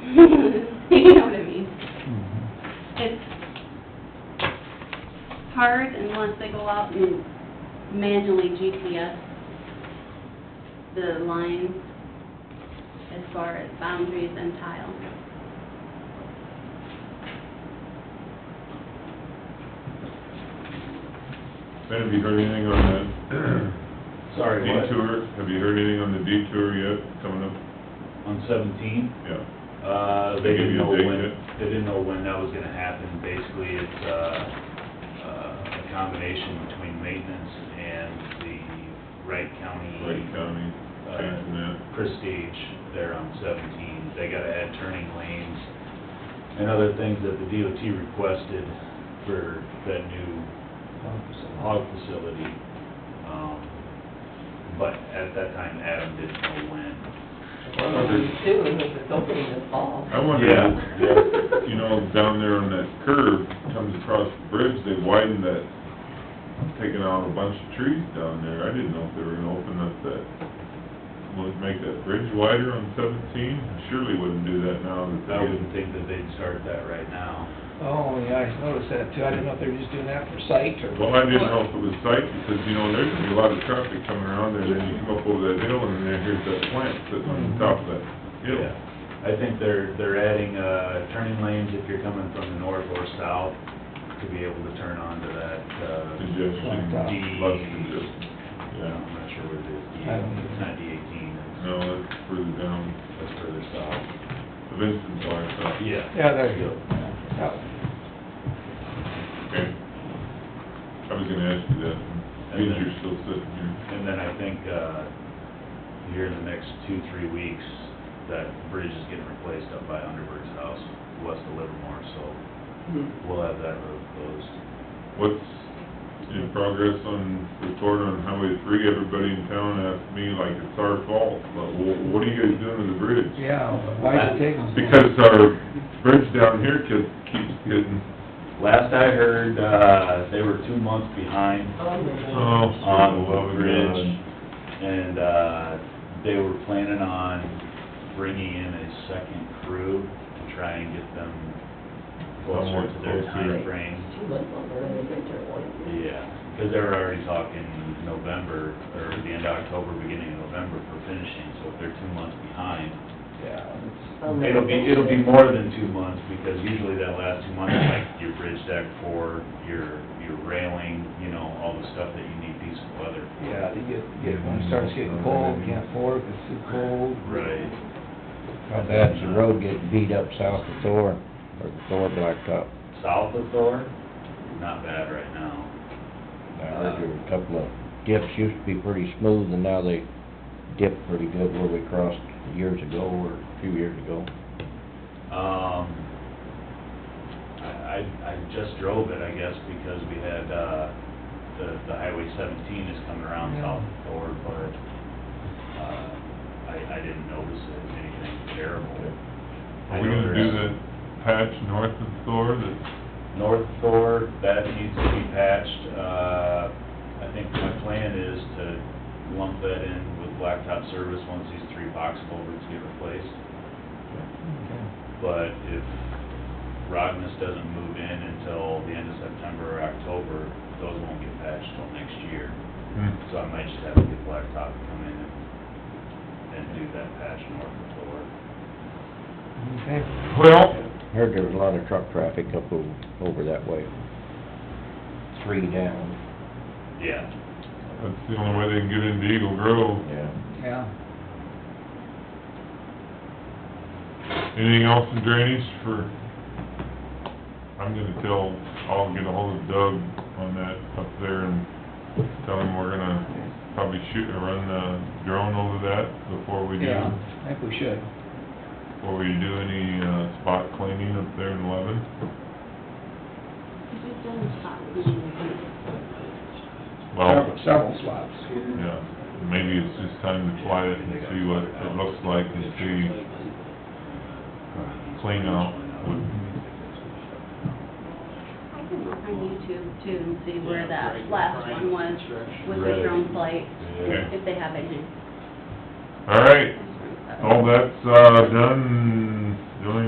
You know what I mean? It's hard unless they go out and manually GPS the lines as far as boundaries and tile. Ben, have you heard anything on that Sorry, what? detour? Have you heard anything on the detour yet, coming up? On seventeen? Yeah. Uh, They they give didn't you a know date when, yet? they didn't know when that was gonna happen. Basically, it's, uh, uh, a combination between maintenance and the Wright Lake County, County, changing that. uh, Prestige there on seventeen. They gotta add turning lanes and other things that the DOT requested for that new hog facility. Um, But at that time, Adam didn't know when. Too, if it's opening this fall. I wonder, Yeah. you know, down there on that curve, comes across the bridge, they widened that, taking out a bunch of trees down there. I didn't know if they were gonna open up that, would make that bridge wider on seventeen. Surely wouldn't do that now that I they wouldn't didn't. think that they'd start that right now. Oh, yeah, I noticed that too. I didn't know if they were just doing that for sight or... Well, I didn't know if it was site, because, you know, there's gonna be a lot of traffic coming around there, then you come up over that hill, and then here's that plant sitting on the top of that hill. Yeah. I think they're, they're adding, uh, turning lanes if you're coming from the north or south to be able to turn onto that, uh, Congestion, D. lots of congestion. Yeah. I'm not sure what it is, D, I don't know. it's not D eighteen, No, that's further down, it's, it's further south. the Vincent's line, so. Yeah. Yeah, Oh, there you go. Yeah. Okay. I was gonna ask you that, because you're still sitting here. And then I think, uh, here in the next two, three weeks, that bridge is getting replaced up by Underberg's house, west of Livermore, so Hmm. we'll have that road closed. What's in progress on report on Highway three? Everybody in town asked me like it's our fault, but wh- what are you guys doing to the bridge? Yeah, why'd you take them? Because our bridge down here keeps, keeps getting, Last I heard, uh, they were two months behind oh, on so, oh, the bridge, and, uh, they were planning on bringing in a second crew to try and get them closer to their Somewhat closer. timeframe. Two months longer than the winter one. Yeah, because they were already talking November, or the end of October, beginning of November for finishing, so if they're two months behind, Yeah. Um, it'll be, it'll be more than two months, because usually that last two months, like your bridge deck for, your, your railing, you know, all the stuff that you need decent weather for. Yeah, they get, get, when it starts getting cold, can't fork, it's too cold. Right, How bad's the road getting beat up south of Thor, or the Thor Blacktop? south of Thor, not bad right now. I heard there were a couple of dips, used to be pretty smooth, and now they dip pretty good where we crossed years ago, or a few years ago. Um, I, I, I just drove it, I guess, because we had, uh, the, the Highway seventeen is coming around Yeah. south of Thor, but, uh, I, I didn't notice it was anything terrible. I Are we know gonna do there's- the patch north of Thor that, North Thor, that needs to be patched, uh, I think my plan is to lump that in with Blacktop Service once these three box culverts get replaced. Okay. But if Rognus doesn't move in until the end of September or October, those won't get patched till next year. So I might just have to get Blacktop to come in and, and do that patch north of Thor. Okay. well, Heard there was a lot of truck traffic up over, over that way. Three down, Yeah. that's the only way they can get into Eagle Grove. yeah. Yeah. Anything else in drainage for, I'm gonna tell, I'll get ahold of Doug on that up there and tell him we're gonna probably shoot or run the drone over that before we do, Yeah, I think we should. before we do any, uh, spot cleaning up there in Levin. We've done spot cleaning. Well, Several- Several swaps. yeah, maybe it's just time to fly it and see what it looks like and see uh, clean out would I can look on YouTube too and see where that last one was with the drone flight, Okay. if they have any. All right, all that's, uh, done, The only